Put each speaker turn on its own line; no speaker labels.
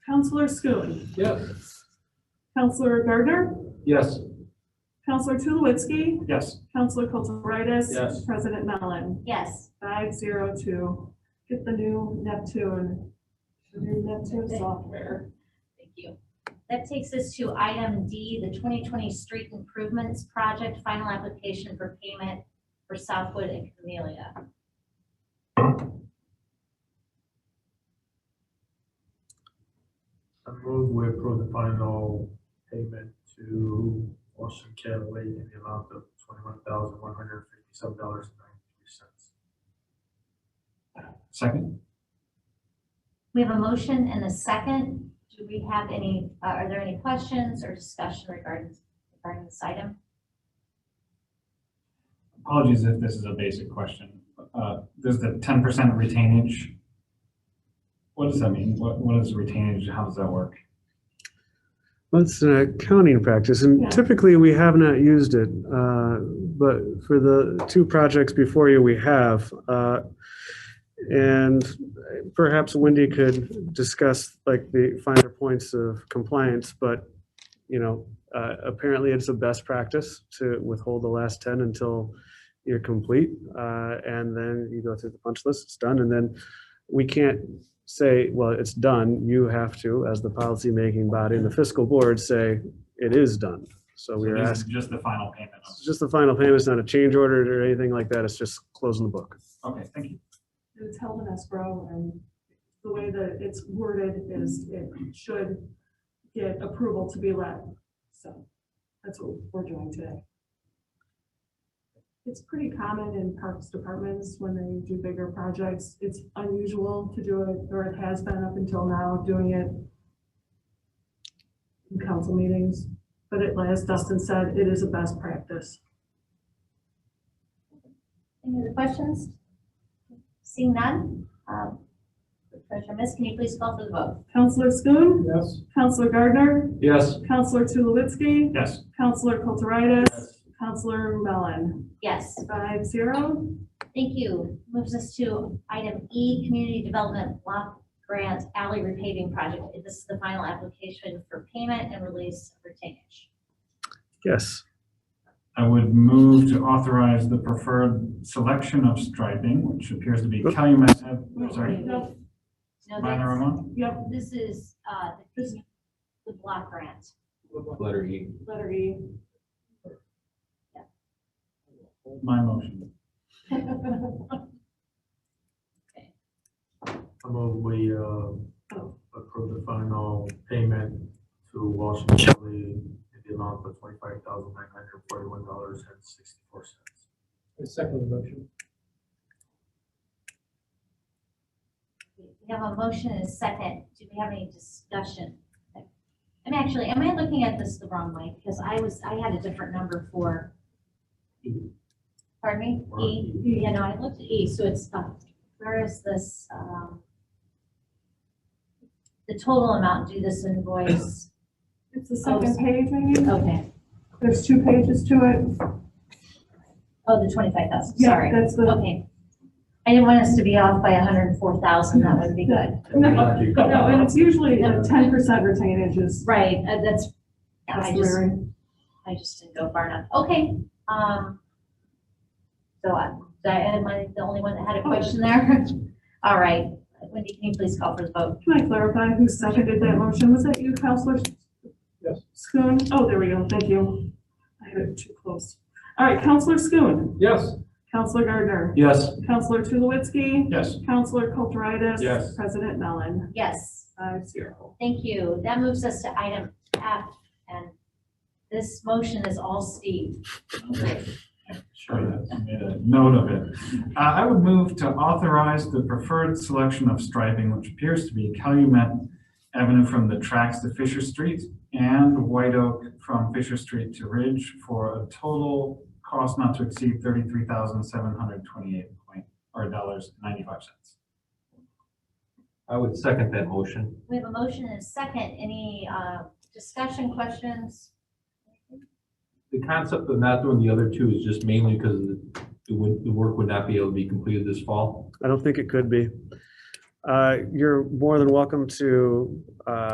Counselor Schoen.
Yes.
Counselor Gardner.
Yes.
Counselor Tulowitzki.
Yes.
Counselor Kulturitis.
Yes.
President Mellon.
Yes.
Five zero two. Get the new Neptune. the New Neptune software.
Thank you. That takes us to item D, the 2020 Street Improvements Project Final Application for Payment for Southwood and Camellia.
I move we approve the final payment to Washington County in the amount of twenty-one thousand one hundred fifty-seven dollars and ninety-three cents. Second?
We have a motion and a second. Do we have any, uh, are there any questions or discussion regarding, regarding this item?
Apologies if this is a basic question. Uh, There's the ten percent retainage. What does that mean? What, what is retainage? How does that work?
Well, it's an accounting practice,
Yeah.
and typically we have not used it. uh, But for the two projects before you, we have. uh, And perhaps Wendy could discuss like the finer points of compliance, but, you know, uh, apparently it's a best practice to withhold the last 10 until you're complete. uh, And then you go through the punch list, it's done, and then we can't say, well, it's done, you have to, as the policymaking body and the fiscal board, say, it is done. So we are
This is
asking,
Just the final payment.
it's just the final payment, it's not a change order or anything like that, it's just closing the book.
Okay, thank you.
It's held in escrow and the way that it's worded is it should get approval to be let. So that's what we're doing today. It's pretty common in parks departments when they do bigger projects. It's unusual to do it, or it has been up until now, doing it in council meetings. But it, as Dustin said, it is a best practice.
Any other questions? Seeing none? um, Treasurer Miss, can you please call for the vote?
Counselor Schoen,
Yes.
Counselor Gardner,
Yes.
Counselor Tulowitzki,
Yes,
Counselor Kulturitis. Counselor Mellon.
Yes.
Five zero.
Thank you. Moves us to item E, Community Development Block Grant Alley Repaving Project. This is the final application for payment and release of retainage.
Yes,
I would move to authorize the preferred selection of striping, which appears to be
Oop.
Calumet. Ave- Sorry,
Yep,
No,
minor
that's-
Ramon?
Yep,
This is uh, the the block grant.
Letter E.
letter E.
My motion.
I move we, uh,
Oh.
approve the final payment to Washington County in the amount of twenty-five thousand nine hundred forty-one dollars and sixty-four cents. second motion.
We have a motion and a second. Do we have any discussion? I'm actually, am I looking at this the wrong way? Because I was, I had a different number for. Pardon me? E? Yeah, no, I looked at E, so it's, uh, where is this, um, the total amount due this invoice?
It's the
Oh.
second page, maybe?
Okay,
There's two pages to it.
oh, the twenty-five thousand,
Yeah,
sorry.
That's the,
Okay. I didn't want us to be off by hundred and four thousand, that would be good.
no, and it's usually uh, ten percent retainage is
Right, uh, that's, yeah, I just,
customary.
I just didn't go far enough. Okay, um, so I, am I the only one that had a question there? All right, Wendy, can you please call for the vote?
Can I clarify who seconded
Mm-hmm.
that motion? Was that you, Counselor?
Yes.
Schoen? Oh, there we go. Thank you. I had it too close. All right, Counselor Schoen,
Yes.
Counselor Gardner,
Yes.
Counselor Tulowitzki,
Yes.
Counselor Kulturitis.
Yes.
President Mellon.
Yes.
Five zero.
Thank you. That moves us to item F, and this motion is all Steve.
Okay. Sure, that- I made a note of it. Uh, I would move to authorize the preferred selection of striping, which appears to be Calumet Avenue from the tracks to Fisher Street and White Oak from Fisher Street to Ridge for a total cost not to exceed thirty-three thousand seven hundred twenty-eight point, or dollars ninety-five cents.
I would second that motion.
We have a motion and a second. Any uh, discussion, questions?
The concept of not doing the other two is just mainly because the, would- the work would not be able to be completed this fall.
I don't think it could be. Uh, You're more than welcome to uh,